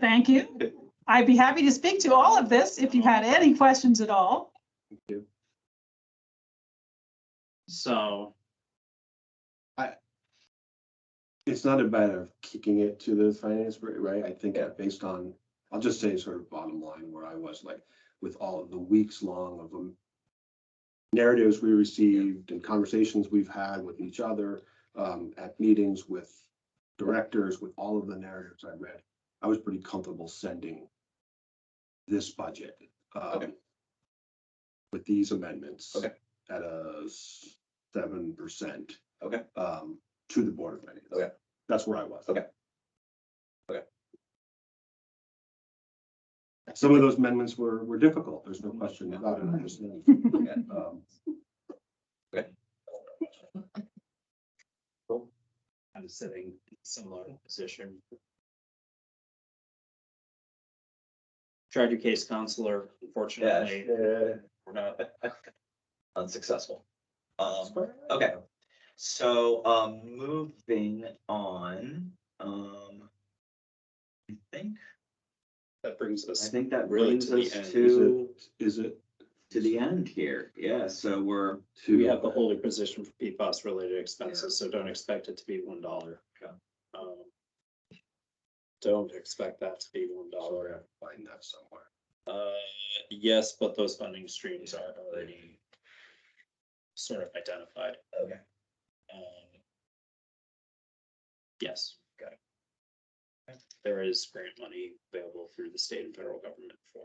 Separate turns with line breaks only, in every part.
Thank you. I'd be happy to speak to all of this if you had any questions at all.
So,
It's not a matter of kicking it to the finance, rate, right? I think that based on, I'll just say sort of bottom line where I was like with all of the weeks long of them. Narratives we received and conversations we've had with each other, um, at meetings with directors, with all of the narratives I read. I was pretty comfortable sending this budget, um,
Okay.
with these amendments.
Okay.
At a seven percent.
Okay.
Um, to the Board of Finance.
Okay.
That's where I was.
Okay. Okay.
Some of those amendments were, were difficult. There's no question about it. I understand. Um,
I'm sitting in a similar position. Charger case counselor, unfortunately, we're not
unsuccessful. Um, okay, so, um, moving on, um. I think,
That brings
I
us,
think that
Really
brings
to the
us
end, is
Is
to,
it, is it
to the end here, yeah, so we're,
to?
we have the holding position for PFAS related expenses, so don't expect it to be one dollar. Um,
Okay.
Don't expect that to be one dollar.
Find that somewhere.
Uh, yes, but those funding streams are already sort of identified.
okay,
Um, Yes.
Got it.
There is grant money available through the state and federal government for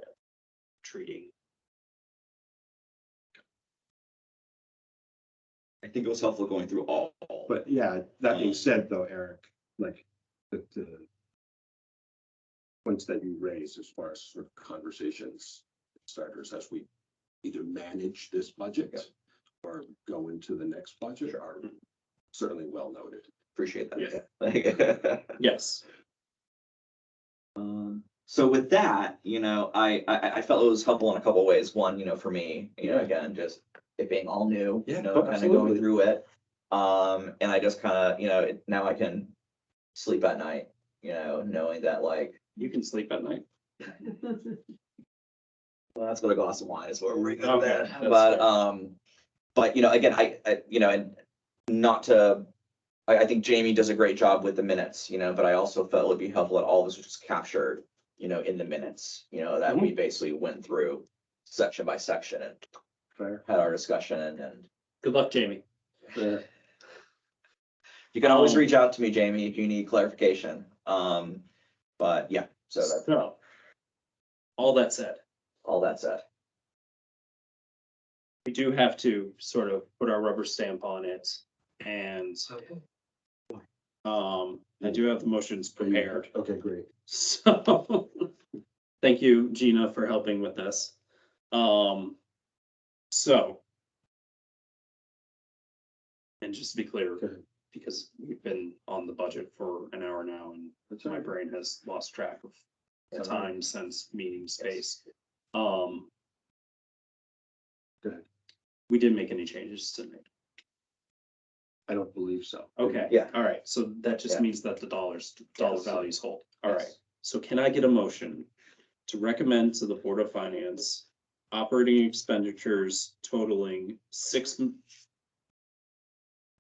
treating.
I think it was helpful going through all. all
But yeah, that being said though, Eric, like the, the points that you raised as far as sort of conversations starters as we either manage this budget
Yeah.
or go into the next budget are certainly well noted.
Appreciate
Yeah.
that. Like,
Yes.
Um, so with that, you know, I, I, I felt it was helpful in a couple ways. One, you know, for me, you know,
Yeah.
again, just it being all new,
Yeah,
you know,
oh,
kind of
absolutely.
going through it. Um, and I just kind of, you know, it- now I can sleep at night, you know, knowing that like,
You can sleep at night.
well, that's what a glass of wine is for. We're good
Okay,
there.
that's
But,
fair.
um, but, you know, again, I, I, you know, and not to, I, I think Jamie does a great job with the minutes, you know, but I also felt it would be helpful that all this was just captured, you know, in the minutes, you know, that
Mm-hmm.
we basically went through section by section and
Fair?
had our discussion and, and
Good luck, Jamie.
Fair.
you can always
Um,
reach out to me, Jamie, if you need clarification. Um, but yeah, so that's
So. All that said,
all that said.
we do have to sort of put our rubber stamp on it and, um, I do have the motions prepared.
Okay, great.
So, thank you, Gina, for helping with this. Um, so. And just to be clear,
Okay.
because we've been on the budget for an hour now and
That's all
my
right.
brain has lost track of
That's all right.
time since meeting space. Um.
Go ahead.
We didn't make any changes to it.
I don't believe so.
Okay.
Yeah.
All right. So that just
Yeah.
means that the dollars, dollar
Yes.
values hold. All right. So can I get a motion to recommend to the Board of Finance operating expenditures totaling six? m-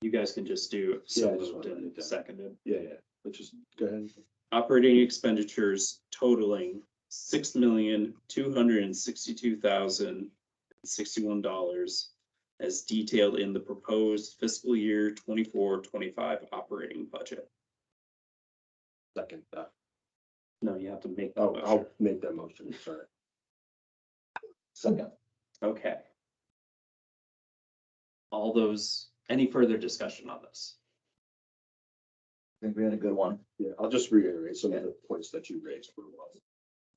You guys can just do
Yeah, I
so
just
moved
wanted to write it
and
down.
seconded.
Yeah, yeah, let's just go ahead.
Operating expenditures totaling six million, two hundred and sixty-two thousand, sixty-one dollars as detailed in the proposed fiscal year twenty-four, twenty-five operating budget.
Second, that.
No, you have to make. the
oh,
motion.
I'll make that motion, sorry.
Second.
Okay. All those, any further discussion on this?
I think we had a good one.
Yeah, I'll just reiterate some of the points that you raised were well.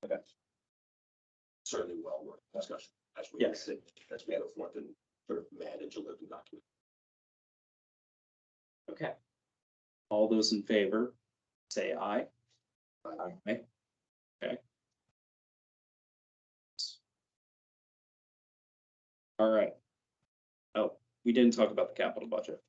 Okay.
Certainly well worth discussion as we.
Yes.
sit- As we go forth and sort of manage a living document.
Okay. All those in favor, say aye.
Aye.
Aye. Okay. All right. Oh, we didn't talk about the capital budget.